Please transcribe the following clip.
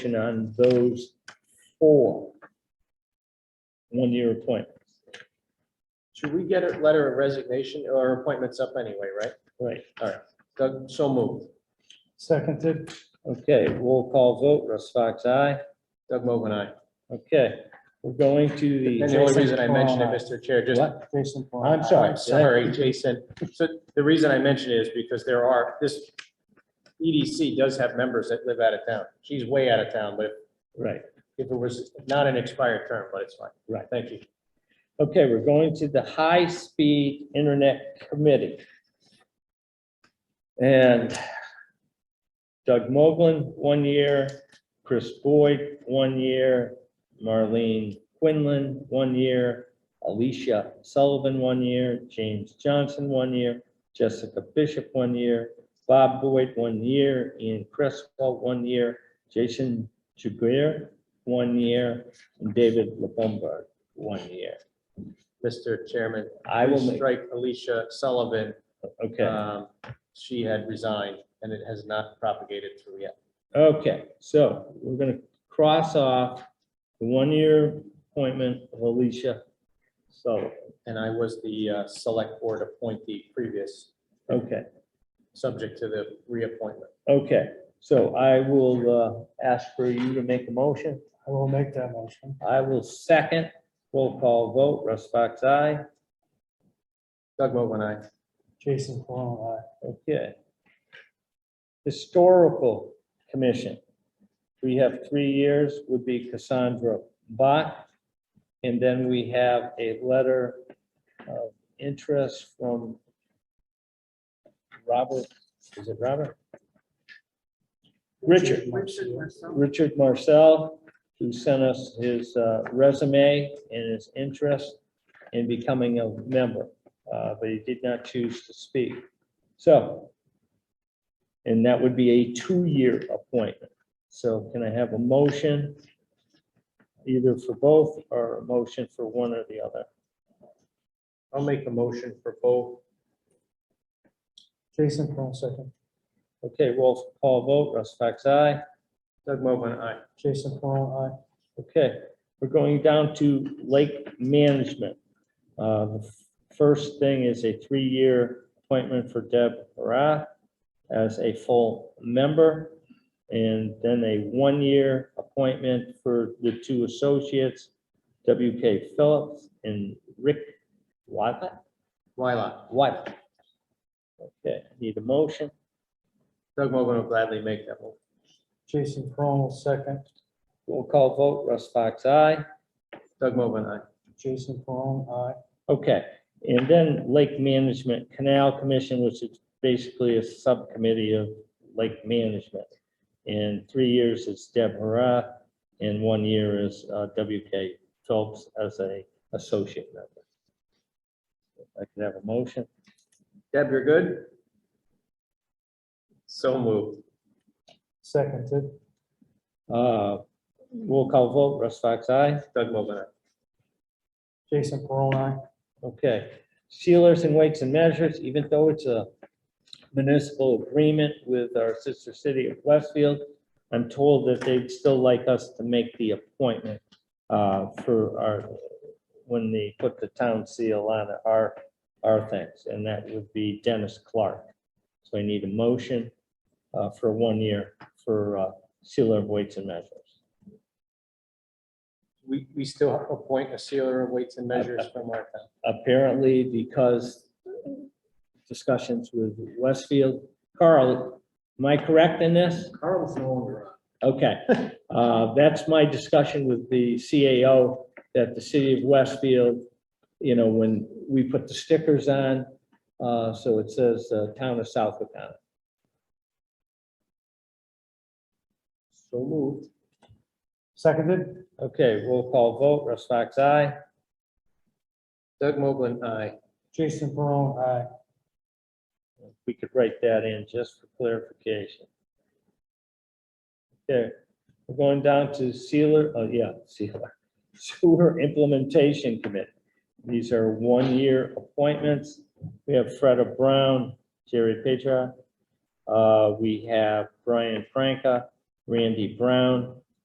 action on those four one-year appointments. Should we get a letter of resignation or appointments up anyway, right? Right. Doug, so moved. Seconded, Okay, roll call vote, Russ Fox, aye. Doug Mogul, aye. Okay, we're going to the. And the only Jason reason I mentioned it, Perron, Mr. Chair, just, What? Jason. Perron. I'm sorry, sorry, Jason. So the reason I mentioned it is because there are, this EDC does have members that live out of town. She's way out of town, but Right, if it was not an expired term, but it's fine. Right. Thank you. okay, we're going to the High Speed Internet Committee. And Doug Moglen, one year, Chris Boyd, one year, Marlene Quinlan, one year, Alicia Sullivan, one year, James Johnson, one year, Jessica Bishop, one year, Bob Boyd, one year, Ian Cresswell, one year, Jason Jagger, one year, and David LeBombard, one year. Mr. Chairman, I I will will make, strike Alicia Sullivan. okay, Um, She had resigned and it has not propagated through yet. okay, so we're gonna cross off the one-year appointment of Alicia Sullivan. And I was the uh, select board appointee previous, Okay, subject to the reappointment. okay, so I will uh, ask for you to make a motion. I will make that motion. I will second, roll call vote, Russ Fox, aye. Doug Mogul, aye. Jason Perron, aye. Okay. Historical Commission. We have three years would be Cassandra Bach. And then we have a letter of interest from Robert, is it Robert? Richard. Richard Marcel, who sent us his uh, resume and his interest in becoming a member, uh, but he did not choose to speak. So, and that would be a two-year appointment. So can I have a motion either for both or a motion for one or the other? I'll make a motion for both. Jason Perron, second. Okay, roll call vote, Russ Fox, aye. Doug Mogul, aye. Jason Perron, aye. Okay, we're going down to lake management. Uh, The First thing is a three-year appointment for Deb Rath as a full member. And then a one-year appointment for the two associates, WK Phillips and Rick Wyla. Wyla, Wyla. Okay, need a motion? Doug Mogul will gladly make that one. Jason Perron, second. Roll call vote, Russ Fox, aye. Doug Mogul, aye. Jason Perron, aye. Okay, and then Lake Management Canal Commission, which is basically a subcommittee of lake management. And three years is Deb Hurrah, and one year is uh, WK Phelps as a associate member. If I could have a motion. Deb, you're good? So moved. Seconded, Uh, Roll call vote, Russ Fox, aye. Doug Mogul, aye. Jason Perron, aye. Okay, sealers and weights and measures, even though it's a municipal agreement with our sister city of Westfield, I'm told that they'd still like us to make the appointment uh, for our, when they put the town seal on our, our things, and that would be Dennis Clark. So I need a motion uh, for one year for uh, sealer of weights and measures. We, we still appoint a sealer of weights and measures from our town. apparently because discussions with Westfield. Carl, am I correct in this? Carl's no longer on. Okay, uh, that's my discussion with the CAO, that the city of Westfield, you know, when we put the stickers on, uh, so it says, uh, town of Southwick on it. So moved. Seconded, Okay, roll call vote, Russ Fox, aye. Doug Mogul, aye. Jason Perron, aye. We could write that in just for clarification. Okay, we're going down to sealer, oh, yeah, sealer, sewer implementation committee. These are one-year appointments. We have Freda Brown, Jerry Petra. Uh, we have Brian Franca, Randy Brown,